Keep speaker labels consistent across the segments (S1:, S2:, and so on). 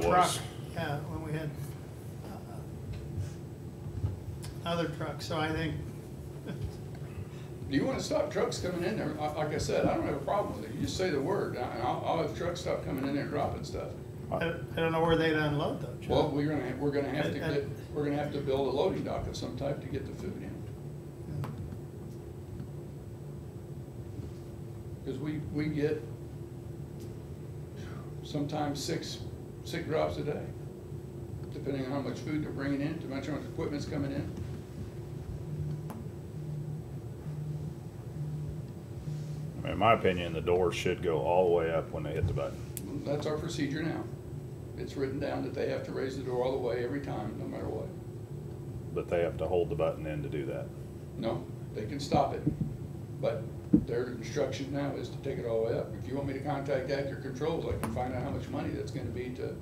S1: truck,
S2: those.
S1: yeah, when we had uh, other trucks, so I think,
S2: Do you wanna stop trucks coming in there? Li- Like I said, I don't have a problem with it. You just say the word, and I'll, I'll have trucks stop coming in there and dropping stuff.
S1: I I don't know where they'd unload though, Chuck.
S2: Well, we're gonna, we're gonna have to
S1: I- I-
S2: get, we're gonna have to build a loading dock of some type to get the food in.
S1: Yeah.
S2: Cause we, we get sometimes six, six drops a day, depending on how much food they're bringing in, how much equipment's coming in.
S3: I mean, In my opinion, the door should go all the way up when they hit the button.
S2: That's our procedure now. It's written down that they have to raise the door all the way every time, no matter what.
S3: But they have to hold the button in to do that.
S2: No, they can stop it, but their instruction now is to take it all the way up. If you want me to contact Actor Controls, I can find out how much money that's gonna be to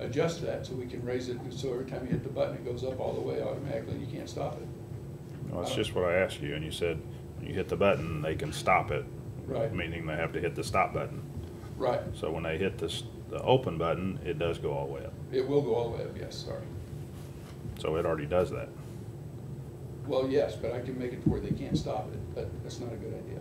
S2: adjust that, so we can raise it, so every time you hit the button, it goes up all the way automatically, you can't stop it.
S3: Well, that's just what I asked you, and you said, when you hit the button, they can stop it.
S2: Right.
S3: Meaning they have to hit the stop button.
S2: Right,
S3: So when they hit this, the open button, it does go all the way up.
S2: it will go all the way up, yes, sorry.
S3: So it already does that.
S2: Well, yes, but I can make it to where they can't stop it, but that's not a good idea.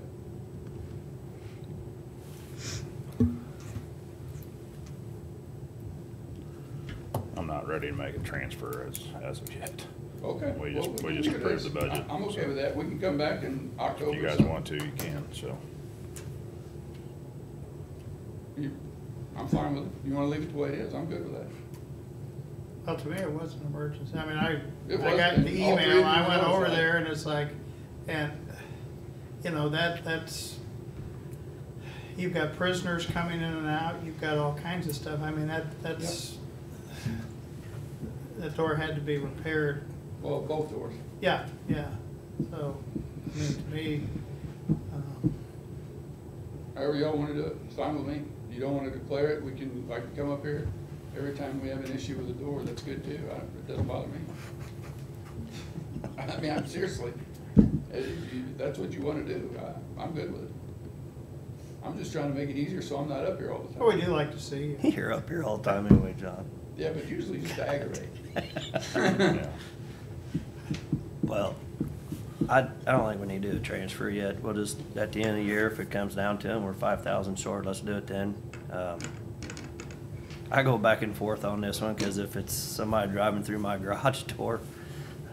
S3: I'm not ready to make a transfer as, as of yet.
S2: Okay.
S3: We just-
S2: well,
S3: we
S2: can
S3: just
S2: do
S3: approved
S2: this.
S3: the budget,
S2: I- I'm okay
S3: so.
S2: with that, we can come back in October.
S3: If you guys
S2: sometime.
S3: want to, you can, so.
S2: You- I'm fine with it, you wanna leave it the way it is, I'm good with that.
S1: Well, to me, it was an emergency. I mean, I,
S2: It
S1: I
S2: was,
S1: got
S2: and
S1: the
S2: all three of
S1: email,
S2: you
S1: I
S2: were
S1: went over
S2: notified.
S1: there and it's like, and, you know, that, that's, you've got prisoners coming in and out, you've got all kinds of stuff. I mean, that, that's, that door had to be repaired.
S2: Well, both doors.
S1: Yeah, yeah. So, I mean, to me, um,
S2: However y'all wanna do it, it's fine with me. You don't wanna declare it, we can, I can come up here. Every time we have an issue with a door, that's good too. I, it doesn't bother me. I mean, I'm seriously, if you- that's what you wanna do, I, I'm good with it. I'm just trying to make it easier so I'm not up here all the
S1: but Oh, we
S2: time.
S1: do like to see you.
S4: You're up here all the time anyway, John.
S2: Yeah, but usually just to aggravate.
S3: yeah.
S4: Well, I, I don't think we need to do a transfer yet. We'll just, at the end of the year, if it comes down to it, we're five thousand short, let's do it then. Um, I go back and forth on this one, cause if it's somebody driving through my garage door,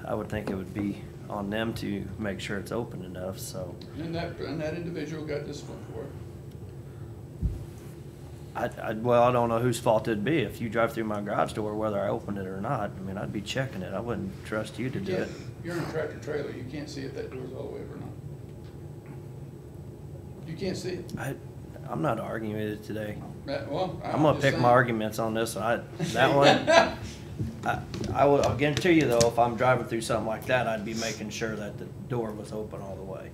S4: I would think it would be on them to make sure it's open enough, so.
S2: And that, and that individual got disciplined for it.
S4: I, I, well, I don't know whose fault it'd be. If you drive through my garage door, whether I opened it or not, I mean, I'd be checking it. I wouldn't trust you to do
S2: Yeah,
S4: it.
S2: You're in a tractor trailer, you can't see if that door's all the way up or not. You can't see it.
S4: I, I'm not arguing with it today.
S2: That- Well.
S4: I'm gonna
S2: just
S4: pick
S2: saying.
S4: my arguments on this one. I, that one,
S2: Uh,
S4: I, I will, I'll guarantee you though, if I'm driving through something like that, I'd be making sure that the door was open all the way.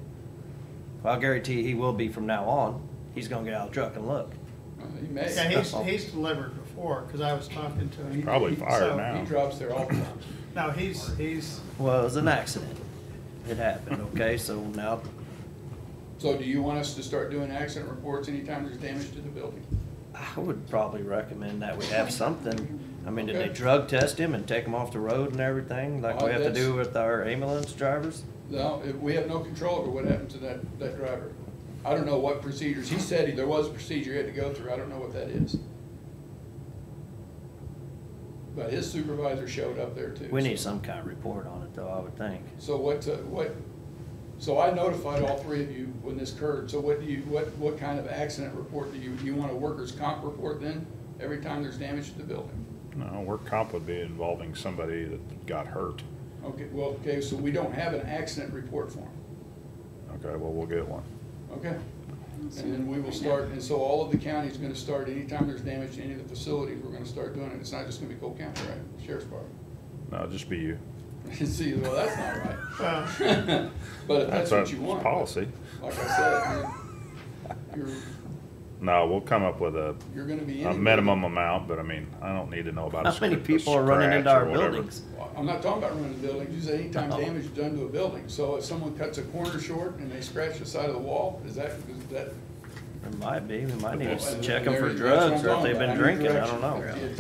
S4: Well, I guarantee he will be from now on. He's gonna get out of the truck and look.
S2: Well, He may.
S1: Yeah, he's, he's delivered before, cause I was talking to him.
S3: Probably fired
S1: So,
S4: Oh.
S3: now.
S2: He drops there all the time.
S1: No, he's, he's,
S4: Well, it was an accident. It happened, okay? So now,
S2: So do you want us to start doing accident reports anytime there's damage to the building?
S4: I would probably recommend that we have something. I mean, did they
S2: Okay.
S4: drug test him and take him off the road and everything, like we
S2: Uh,
S4: have to do
S2: that's-
S4: with our ambulance drivers?
S2: No, if- we have no control over what happened to that, that driver. I don't know what procedures, he said he- there was a procedure he had to go through, I don't know what that is. But his supervisor showed up there too.
S4: We
S2: so-
S4: need some kind of report on it though, I would think.
S2: So what, uh, what, so I notified all three of you when this occurred, so what do you, what, what kind of accident report do you, you want a workers' comp report then? Every time there's damage to the building?
S3: No, work comp would be involving somebody that got hurt.
S2: Okay, well, okay, so we don't have an accident report form,
S3: Okay, well, we'll get one.
S2: okay? And then we will start, and so all of the county's gonna start, anytime there's damage to any of the facilities, we're gonna start doing it, it's not just gonna be Cole County, right, Sheriff's Department?
S3: No, it'll just be you.
S2: See, well, that's not
S1: well,
S2: right, but if that's
S3: our
S2: what you want.
S3: Policy.
S2: Like I said, you're, you're-
S3: No, we'll come up with a,
S2: you're gonna be.
S3: a
S2: anywhere.
S3: minimum amount, but I mean, I don't need to know about. a
S4: How many
S3: sc- a
S4: people are running into
S3: scratch or
S4: our
S3: whatever.
S4: buildings?
S2: Well, I'm not talking about running buildings, you said anytime
S4: No.
S2: damage is done to a building, so if someone cuts a corner short and they scratch the side of the wall, is that, is that?
S4: There might be, we might need
S2: Well,
S4: to check them
S2: there-
S4: for
S2: that's what I'm
S4: drugs or if
S2: talking about. I
S4: they've been
S2: need
S4: drinking, I
S2: direction.
S4: don't know.
S2: If- if